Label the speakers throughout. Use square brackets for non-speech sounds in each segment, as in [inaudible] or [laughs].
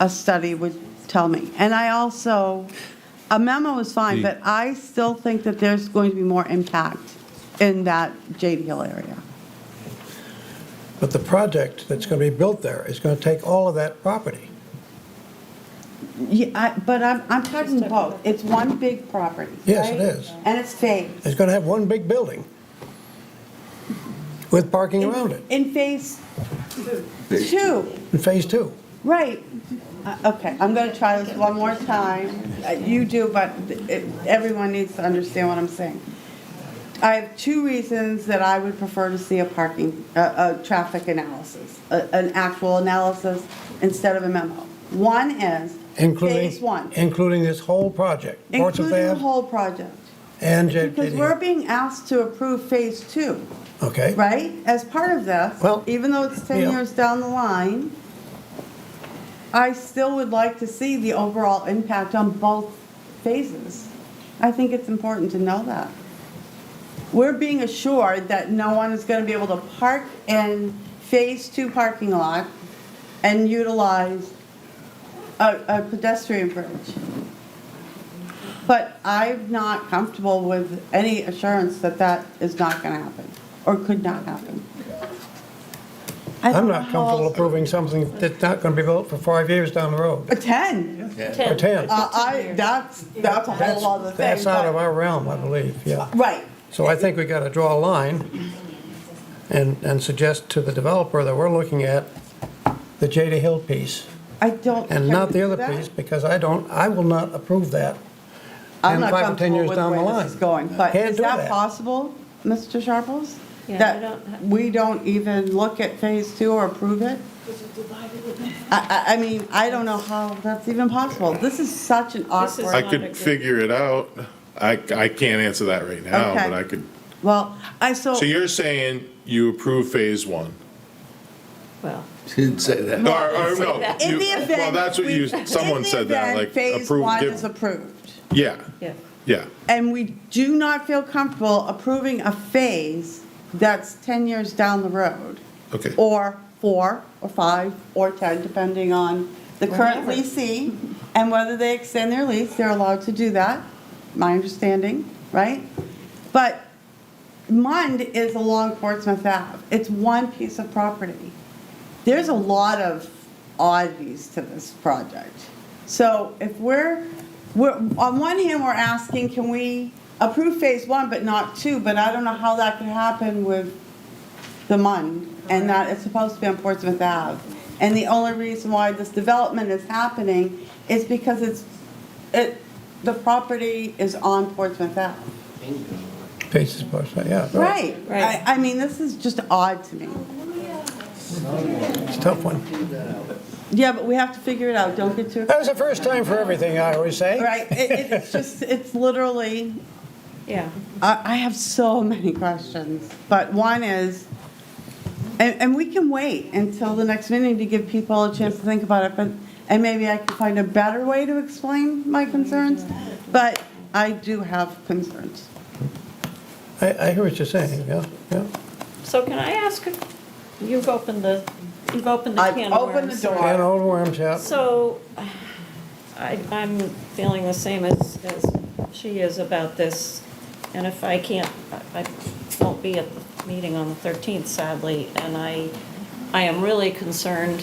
Speaker 1: a study would tell me. And I also, a memo is fine,
Speaker 2: The-
Speaker 1: but I still think that there's going to be more impact in that Jade Hill area.
Speaker 3: But the project that's going to be built there is going to take all of that property.
Speaker 1: Yeah, I- but I'm, I'm talking both. It's one big property.
Speaker 3: Yes, it
Speaker 1: right?
Speaker 3: is.
Speaker 1: And it's phased.
Speaker 3: It's going to have one big building with parking around it
Speaker 1: In phase two,
Speaker 3: in Phase Two.
Speaker 1: right. Uh, Okay, I'm going to try this one more time. Uh, You do, but it- everyone needs to understand what I'm saying. I have two reasons that I would prefer to see a parking, a, a traffic analysis, a- an actual analysis instead of a memo. One is
Speaker 3: Including,
Speaker 1: phase one,
Speaker 3: including this whole project, Portsmouth
Speaker 1: including the
Speaker 3: Ave
Speaker 1: whole project.
Speaker 3: and J-
Speaker 1: Because
Speaker 3: JD.
Speaker 1: we're being asked to approve phase two,
Speaker 3: Okay,
Speaker 1: right? As part of this,
Speaker 3: Well,
Speaker 1: even though it's 10
Speaker 3: yeah.
Speaker 1: years down the line, I still would like to see the overall impact on both phases. I think it's important to know that. We're being assured that no one is going to be able to park in phase two parking lot and utilize a a pedestrian bridge. But I'm not comfortable with any assurance that that is not going to happen, or could not happen. I
Speaker 3: I'm
Speaker 1: don't
Speaker 3: not
Speaker 1: know how
Speaker 3: comfortable
Speaker 1: else-
Speaker 3: approving something that's not going to be built for five years down the road,
Speaker 1: A 10,
Speaker 3: or 10.
Speaker 1: Uh, I, that's, that's a whole other thing.
Speaker 3: That's out of
Speaker 1: but-
Speaker 3: our realm, I believe, yeah.
Speaker 1: Right,
Speaker 3: So I think we got to draw a line and, and suggest to the developer that we're looking at the Jada Hill piece
Speaker 1: I don't.
Speaker 3: and
Speaker 1: can
Speaker 3: not
Speaker 1: we
Speaker 3: the
Speaker 1: do
Speaker 3: other
Speaker 1: that?
Speaker 3: piece, because I don't, I will not approve that.
Speaker 1: I'm not
Speaker 3: and five or 10
Speaker 1: comfortable
Speaker 3: years
Speaker 1: with
Speaker 3: down the
Speaker 1: where
Speaker 3: line.
Speaker 1: this is going, but
Speaker 3: Can't
Speaker 1: is
Speaker 3: do
Speaker 1: that
Speaker 3: that.
Speaker 1: possible, Mr. Sharples?
Speaker 4: Yeah, I
Speaker 1: That
Speaker 4: don't-
Speaker 1: we don't even look at phase two or approve it? I, I, I mean, I don't know how that's even possible. This is such an
Speaker 4: This is-
Speaker 1: awkward.
Speaker 2: I
Speaker 4: not a
Speaker 2: could
Speaker 4: good-
Speaker 2: figure it out. I, I can't answer that right now,
Speaker 1: Okay. Oh.
Speaker 2: but I could.
Speaker 1: Well, I, so,
Speaker 2: So you're saying you approve phase one?
Speaker 4: Well,
Speaker 5: Didn't say that.
Speaker 2: Or, or no?
Speaker 1: in
Speaker 2: you-
Speaker 1: the event.
Speaker 2: Well, that's what you,
Speaker 1: we- in
Speaker 2: someone
Speaker 1: the
Speaker 2: said that,
Speaker 1: event
Speaker 2: like,
Speaker 1: Phase
Speaker 2: approve,
Speaker 1: one is
Speaker 2: give,
Speaker 1: approved,
Speaker 2: yeah,
Speaker 4: yeah.
Speaker 2: yeah.
Speaker 1: and we do not feel comfortable approving a phase that's 10 years down the road.
Speaker 2: Okay.
Speaker 1: Or four, or five, or 10, depending on the current
Speaker 4: Whatever.
Speaker 1: leasee and whether they extend their lease, they're allowed to do that, my understanding, right? But Mund is along Portsmouth Ave. It's one piece of property. There's a lot of oddities to this project. So if we're, we're, on one hand, we're asking, can we approve phase one but not two? But I don't know how that could happen with the Mund, and that it's supposed to be on Portsmouth Ave. And the only reason why this development is happening is because it's, it, the property is on Portsmouth Ave.
Speaker 3: Pieces, parts, yeah.
Speaker 1: Right, I,
Speaker 4: Right.
Speaker 1: I mean, this is just odd to me.
Speaker 3: It's a tough one.
Speaker 1: Yeah, but we have to figure it out, don't get too,
Speaker 3: That was the first time for everything, I always
Speaker 1: [laughs]
Speaker 3: say.
Speaker 1: right, it, it's just, it's literally,
Speaker 4: Yeah.
Speaker 1: I, I have so many questions, but one is, and, and we can wait until the next meeting to give people a chance to think about it, but, and maybe I can find a better way to explain my concerns, but I do have concerns.
Speaker 3: I, I hear what you're saying, yeah, yeah.
Speaker 4: So can I ask, a- you've opened the, you've opened the
Speaker 1: I've
Speaker 4: can of worms.
Speaker 1: opened the door.
Speaker 3: And old worms, yeah.
Speaker 4: So I, I'm feeling the same as, as she is about this. And if I can't, I I won't be at the meeting on the 13th sadly. And I, I am really concerned,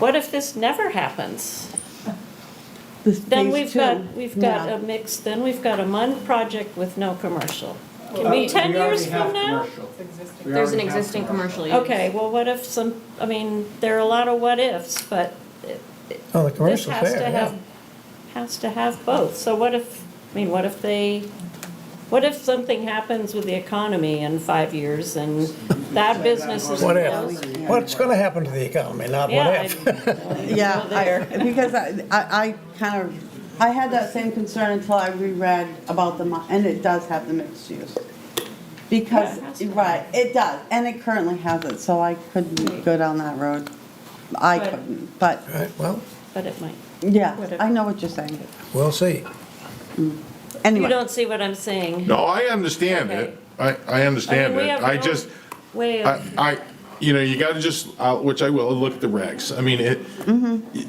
Speaker 4: what if this never happens?
Speaker 1: This
Speaker 4: Then
Speaker 1: phase
Speaker 4: we've
Speaker 1: two,
Speaker 4: got, we've got
Speaker 1: yeah.
Speaker 4: a mix, then we've got a MUN project with no commercial. Can be 10 years from now?
Speaker 6: There's an existing commercial use.
Speaker 4: Okay, well, what if some, I mean, there are a lot of what-ifs, but it- it-
Speaker 3: Oh, the
Speaker 4: this
Speaker 3: commercial's
Speaker 4: has to
Speaker 3: there,
Speaker 4: have,
Speaker 3: yeah.
Speaker 4: has to have both. So what if, I mean, what if they, what if something happens with the economy in five years and that business is
Speaker 3: What
Speaker 4: closed?
Speaker 3: if? What's going to happen to the economy, not what
Speaker 4: Yeah,
Speaker 3: if?
Speaker 4: I-
Speaker 1: Yeah,
Speaker 4: Go there.
Speaker 1: I- [laughs] because I, I I kind of, I had that same concern until I reread about the, mi- and it does have the mixed use. Because,
Speaker 4: Yeah, it has to.
Speaker 1: right, it does, and it currently has it, so I couldn't go down that road. I
Speaker 4: But-
Speaker 1: couldn't, but,
Speaker 3: All [laughs] right, well,
Speaker 4: but it might.
Speaker 1: yeah,
Speaker 4: Whatever.
Speaker 1: I know what you're saying.
Speaker 3: we'll see.
Speaker 4: You
Speaker 1: Anyway,
Speaker 4: don't see what I'm saying?
Speaker 2: No, I understand it. I, I understand
Speaker 4: I mean, we
Speaker 2: it.
Speaker 4: have
Speaker 2: I
Speaker 4: no
Speaker 2: just,
Speaker 4: Way
Speaker 2: I,
Speaker 4: of,
Speaker 2: I, you know, you gotta just, uh, which I will, look at the regs. I mean, it,